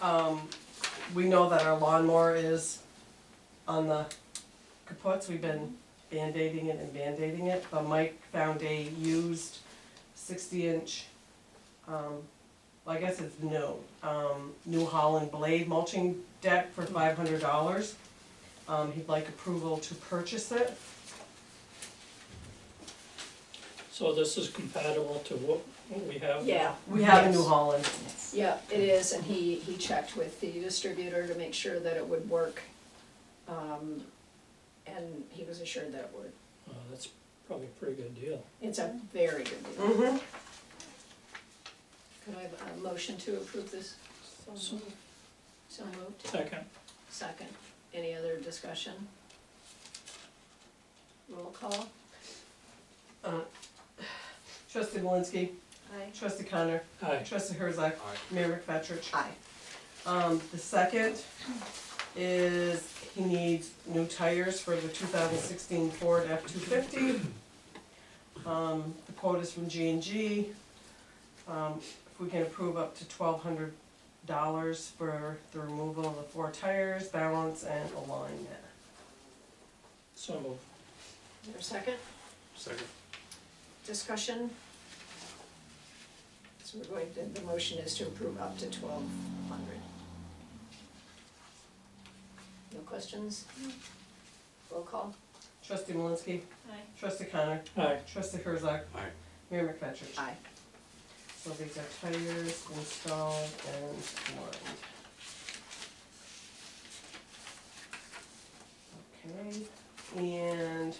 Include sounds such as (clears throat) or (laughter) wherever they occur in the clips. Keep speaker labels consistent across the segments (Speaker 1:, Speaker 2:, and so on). Speaker 1: Um, we know that our lawnmower is on the kaputs, we've been band-aiding it and band-aiding it, but Mike found a used sixty inch, um, well, I guess it's new, um, New Holland blade mulching deck for five hundred dollars. Um, he'd like approval to purchase it,
Speaker 2: So this is compatible to what, what we have?
Speaker 3: Yeah,
Speaker 1: we have a New
Speaker 3: Yes.
Speaker 1: Holland,
Speaker 3: yeah, it is, and he, he checked with the distributor to make sure that it would work. Um, and he was assured that it would.
Speaker 2: Uh, that's probably a pretty good deal.
Speaker 3: It's a very good deal.
Speaker 1: hmm
Speaker 3: Could I have a motion to approve this?
Speaker 2: So-
Speaker 3: So moved.
Speaker 2: Second,
Speaker 3: Second. Any other discussion? Roll call?
Speaker 1: Trustee Malinsky,
Speaker 3: Aye.
Speaker 1: Trustee Connor,
Speaker 2: aye,
Speaker 1: Trustee Herzog, Mayor McFetrich.
Speaker 3: Aye.
Speaker 1: Um, the second is he needs new tires for the two thousand sixteen Ford F two fifty. Um, the quote is from G and G. Um, if we can approve up to twelve hundred dollars for the removal of the four tires, balance and alignment.
Speaker 2: so moved.
Speaker 3: Is there a second?
Speaker 4: Second.
Speaker 3: Discussion? So we're going to, the motion is to approve up to twelve hundred. No questions? Roll call?
Speaker 1: Trustee Malinsky.
Speaker 3: Aye.
Speaker 1: Trustee Connor.
Speaker 2: Aye,
Speaker 1: Trustee Herzog.
Speaker 4: Aye.
Speaker 1: Mayor McFetrich.
Speaker 3: Aye.
Speaker 1: So these are tires installed and lined. Okay, and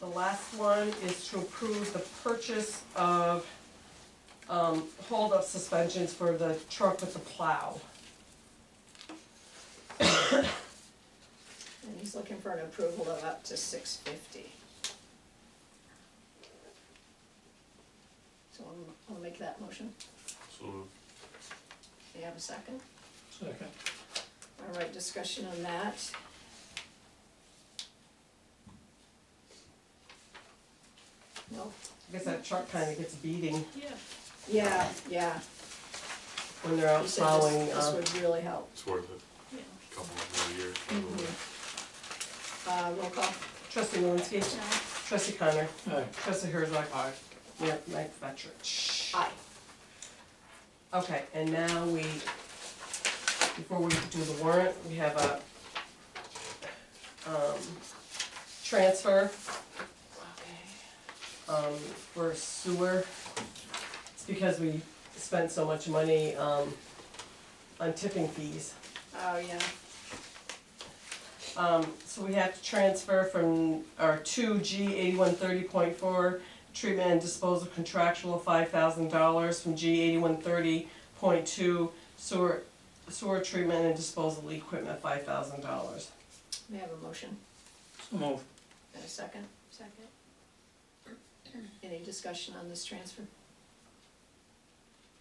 Speaker 1: the last one is to approve the purchase of, um, hold-up suspensions for the truck with the plow.
Speaker 3: And he's looking for an approval of up to six fifty. So I'll, I'll make that motion.
Speaker 4: So moved.
Speaker 3: Do you have a second?
Speaker 2: second,
Speaker 3: All right, discussion on that. No?
Speaker 1: I guess that truck kinda gets beating
Speaker 3: Yeah, yeah.
Speaker 1: when they're out
Speaker 3: You said this-
Speaker 1: plowing,
Speaker 3: This
Speaker 1: uh,
Speaker 3: would really help.
Speaker 4: It's worth it. Couple more years.
Speaker 3: Mm-hmm. Uh, roll call.
Speaker 1: trustee Malinsky, trustee Connor,
Speaker 2: aye,
Speaker 1: trustee Herzog. Aye. Mayor McFetrich.
Speaker 3: Aye.
Speaker 1: Okay, and now we, before we do the warrant, we have a, um, transfer,
Speaker 3: Okay.
Speaker 1: um, for sewer. It's because we spent so much money, um, on tipping fees.
Speaker 3: Oh, yeah.
Speaker 1: Um, so we have to transfer from our two G eighty-one thirty point four treatment and disposal contractual five thousand dollars from G eighty-one thirty point two sewer, sewer treatment and disposal equipment five thousand dollars.
Speaker 3: May I have a motion
Speaker 2: so moved.
Speaker 3: and a second? Second. Any discussion on this transfer?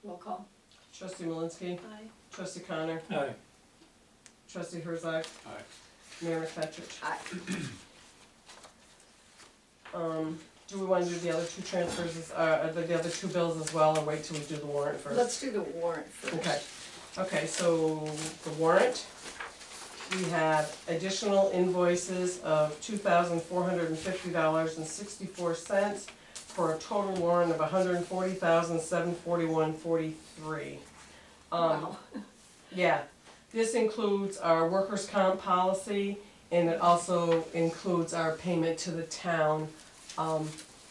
Speaker 3: Roll call.
Speaker 1: Trustee Malinsky,
Speaker 3: Aye.
Speaker 1: trustee Connor,
Speaker 2: Aye,
Speaker 1: trustee Herzog,
Speaker 4: Aye.
Speaker 1: Mayor McFetrich.
Speaker 3: Aye.
Speaker 1: (clears throat) Um, do we wanna do the other two transfers, as- uh, uh, the, the other two bills as well, or wait till we do the warrant 1st
Speaker 3: Let's do the warrant
Speaker 1: Okay,
Speaker 3: first.
Speaker 1: okay, so the warrant, we have additional invoices of two thousand four hundred and fifty dollars and sixty-four cents for a total warrant of 140741 hundred and forty thousand seven forty-one forty-three. Um,
Speaker 3: Wow.
Speaker 1: yeah, this includes our workers' comp policy, and it also includes our payment to the town, um,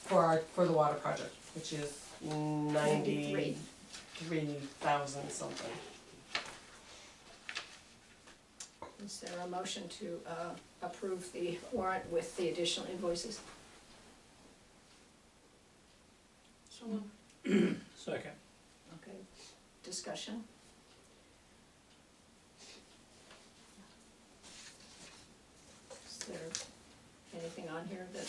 Speaker 1: for our, for the water project, which is ninety-three
Speaker 3: Ninety-three.
Speaker 1: three thousand something. um,
Speaker 3: Is there a motion to uh, approve the warrant with the additional invoices? So
Speaker 2: second,
Speaker 3: Okay, discussion? Is there anything on here that,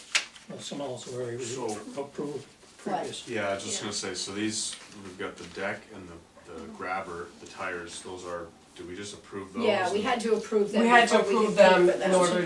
Speaker 2: well, some else were already
Speaker 4: So-
Speaker 2: approved previous.
Speaker 4: Yeah, I was just gonna say, so these, we've got the deck and the, the
Speaker 3: Mm-hmm.
Speaker 4: grabber, the tires, those are, do we just approve those?
Speaker 3: yeah, we had to approve them
Speaker 1: We had to
Speaker 3: before we
Speaker 1: approve
Speaker 3: could pay
Speaker 1: them
Speaker 3: for
Speaker 1: in
Speaker 3: them.
Speaker 1: order